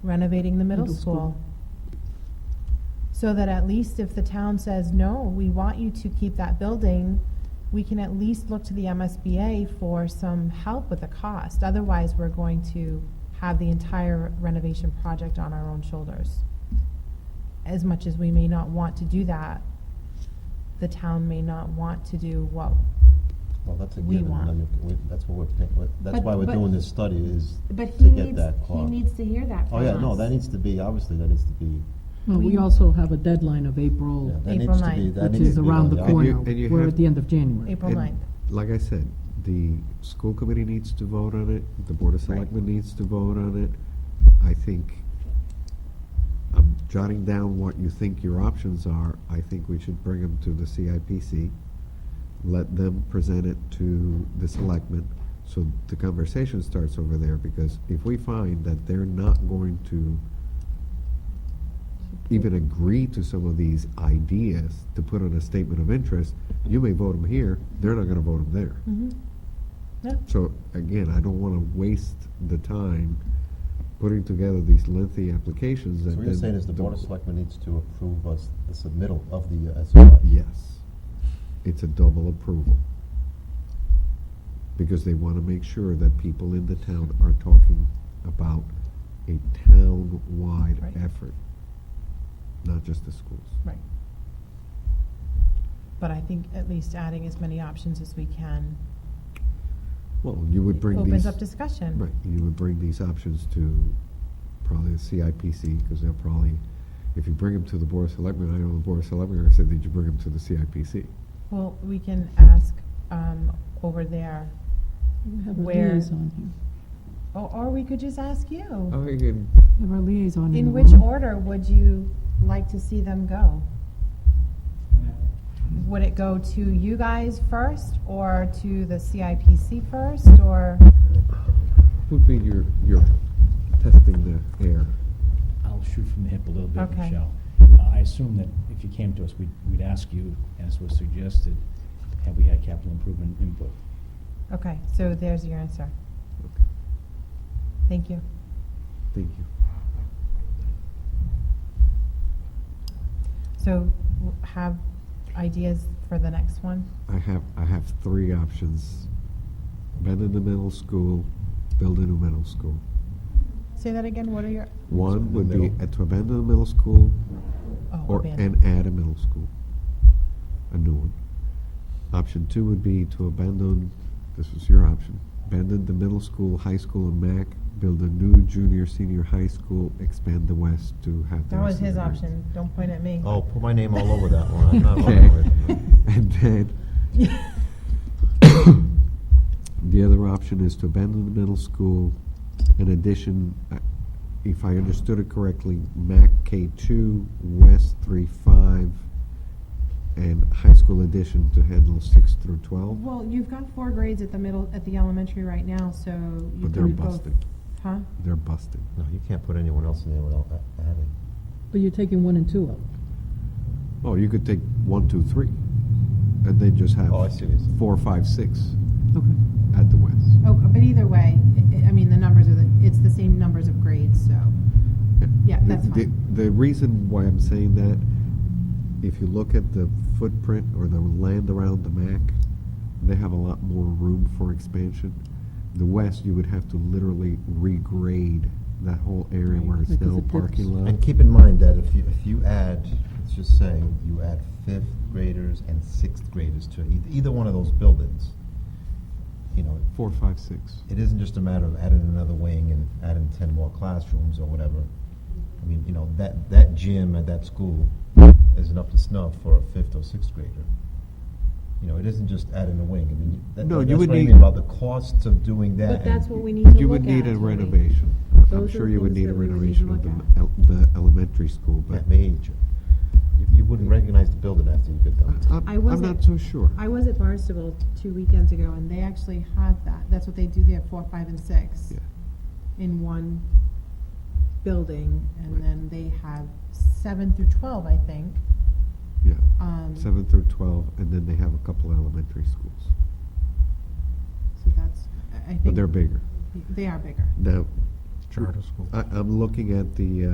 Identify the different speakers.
Speaker 1: renovating the middle
Speaker 2: Middle
Speaker 1: school.
Speaker 2: school.
Speaker 1: So that at least if the town says, no, we want you to keep that building, we can at least look to the MSBA for some help with the cost. Otherwise, we're going to have the entire renovation project on our own shoulders. As much as we may not want to do that, the town may not want to do what,
Speaker 3: Well, that's a
Speaker 1: we
Speaker 3: given. I
Speaker 1: want.
Speaker 3: mean, we- that's what we're, paying- what- that's
Speaker 2: But-
Speaker 3: why we're
Speaker 2: but-
Speaker 3: doing this study is
Speaker 4: But
Speaker 3: to
Speaker 4: he
Speaker 3: get
Speaker 4: needs,
Speaker 3: that
Speaker 4: he
Speaker 3: clock.
Speaker 4: needs to hear that from
Speaker 3: Oh,
Speaker 4: us.
Speaker 3: yeah, no, that needs to be, obviously, that needs to be,
Speaker 2: Well, we
Speaker 1: We-
Speaker 2: also have a deadline of
Speaker 3: yeah,
Speaker 2: April,
Speaker 3: that
Speaker 1: April
Speaker 3: needs to be,
Speaker 1: 9th.
Speaker 3: that
Speaker 2: which
Speaker 3: needs
Speaker 2: is
Speaker 3: to be.
Speaker 2: around the
Speaker 3: on
Speaker 2: corner.
Speaker 5: And you
Speaker 2: We're
Speaker 5: have-
Speaker 2: at the end of January.
Speaker 1: April
Speaker 5: And
Speaker 1: 9th.
Speaker 5: Like I said, the school committee needs to vote on it, the board of
Speaker 1: Right.
Speaker 5: selectmen needs to vote on it. I think, I'm jotting down what you think your options are. I think we should bring them to the CIPC, let them present it to the selectmen, so the conversation starts over there, because if we find that they're not going to even agree to some of these ideas to put on a statement of interest, you may vote them here, they're not gonna vote them there.
Speaker 1: Mhm. Yeah.
Speaker 5: So again, I don't wanna waste the time putting together these lengthy applications
Speaker 3: So
Speaker 5: that
Speaker 3: what you're
Speaker 5: then
Speaker 3: saying is the Board of
Speaker 5: don't-
Speaker 3: Selectmen needs to approve us the submittal of the uh, SOI?
Speaker 5: Yes. It's a double approval. Because they want to make sure that people in the town are talking about a town-wide
Speaker 1: Right.
Speaker 5: effort, not just the schools.
Speaker 1: Right. But I think at least adding as many options as we can
Speaker 5: Well, you would bring these.
Speaker 1: opens up discussion.
Speaker 5: Right, you would bring these options to probably the CIPC, because they'll probably, if you bring them to the Board of Selectmen, I know the Board of Selectmen are saying, did you bring them to the CIPC?
Speaker 1: Well, we can ask um, over there,
Speaker 2: We have a
Speaker 1: Where-
Speaker 2: liaison here.
Speaker 1: or or we could just ask you.
Speaker 5: Oh, mm-hmm. you can,
Speaker 2: We have our liaison in the
Speaker 1: In which
Speaker 2: room.
Speaker 1: order would you like to see them go? Would it go to you guys first, or to the CIPC first, or,
Speaker 5: would be your, your testing the air.
Speaker 6: I'll shoot from the hip a little bit,
Speaker 1: Okay.
Speaker 6: Michelle. Uh, I assume that if you came to us, we'd, we'd ask you, as was suggested, have we had capital improvement input?
Speaker 1: okay, so there's your answer.
Speaker 5: Okay.
Speaker 1: Thank you.
Speaker 5: Thank you.
Speaker 1: So w- have ideas for the next one?
Speaker 5: I have, I have three options. Bend in the middle school, build a new middle school.
Speaker 1: Say that again, what are your,
Speaker 5: One would be
Speaker 3: Middle.
Speaker 5: at to abandon the middle school
Speaker 1: oh,
Speaker 5: or,
Speaker 1: abandoned.
Speaker 5: and add a middle school, a new one. Option two would be to abandon, this is your option, abandon the middle school, high school and MAC, build a new junior, senior high school, expand the west to have the
Speaker 1: That was
Speaker 5: rest of
Speaker 1: his
Speaker 5: the grades.
Speaker 1: option, don't point at me.
Speaker 3: Oh, put my name all over that one. I'm not running away
Speaker 5: Okay.
Speaker 3: from it.
Speaker 5: And then, the other option is to abandon the middle school. In addition, uh, if I understood it correctly, MAC K2, West 3-5, and high school addition to handle 6 through 12.
Speaker 1: Well, you've got four grades at the middle, at the elementary right now, so you
Speaker 5: But they're
Speaker 1: could go.
Speaker 5: busted.
Speaker 1: Huh?
Speaker 5: They're busted.
Speaker 3: No, you can't put anyone else in there without a- adding.
Speaker 2: But you're taking one and two out.
Speaker 5: Oh, you could take one, two, three, and then just have
Speaker 3: Oh, I see what you're saying.
Speaker 5: four, five, six
Speaker 2: Okay.
Speaker 5: at the West.
Speaker 1: Oh, but either way, I- I mean, the numbers are, the it's the same numbers of grades, so. Yeah,
Speaker 5: The-
Speaker 1: that's
Speaker 5: the-
Speaker 1: fine.
Speaker 5: The reason why I'm saying that, if you look at the footprint or the land around the MAC, they have a lot more room for expansion. The west, you would have to literally regrade that whole area
Speaker 2: Right,
Speaker 5: where it's
Speaker 2: because
Speaker 5: now a
Speaker 2: it
Speaker 5: parking
Speaker 2: dips.
Speaker 5: lot.
Speaker 3: And keep in mind that if you, if you add, it's just saying, you add fifth graders and sixth graders to either, either one of those buildings, you know,
Speaker 5: Four, five, six.
Speaker 3: it isn't just a matter of adding another wing and adding ten more classrooms or whatever. I mean, you know, that, that gym at that school isn't up to snuff for a fifth or sixth grader. You know, it isn't just adding a wing. I mean, that,
Speaker 5: No, you
Speaker 3: that's
Speaker 5: would
Speaker 3: what I
Speaker 5: need-
Speaker 3: mean about the costs of doing that.
Speaker 4: But
Speaker 3: and-
Speaker 4: that's what we need to look at.
Speaker 5: You would need a
Speaker 4: Tony.
Speaker 5: renovation. I'm
Speaker 4: Those
Speaker 5: sure
Speaker 4: are
Speaker 5: you would
Speaker 4: things
Speaker 5: need a
Speaker 4: that we would need to
Speaker 5: renovation of
Speaker 4: look
Speaker 5: the, el- the elementary school, but
Speaker 3: That major. You, you wouldn't recognize the building after you get done.
Speaker 5: I- I'm,
Speaker 4: I
Speaker 5: I'm
Speaker 4: wasn't-
Speaker 5: not so sure.
Speaker 1: I was at Barnstable two weekends ago, and they actually have that, that's what they do there, four, five, and six.
Speaker 5: Yeah.
Speaker 1: In one building, and
Speaker 5: Right.
Speaker 1: then they have seven through twelve, I think.
Speaker 5: Yeah,
Speaker 1: Um, So
Speaker 5: seven through twelve, and then they have a couple elementary schools,
Speaker 1: that's, I- I think.
Speaker 5: but they're bigger.
Speaker 1: They are bigger.
Speaker 5: Now,
Speaker 4: charter school.
Speaker 5: I, I'm looking at the, uh,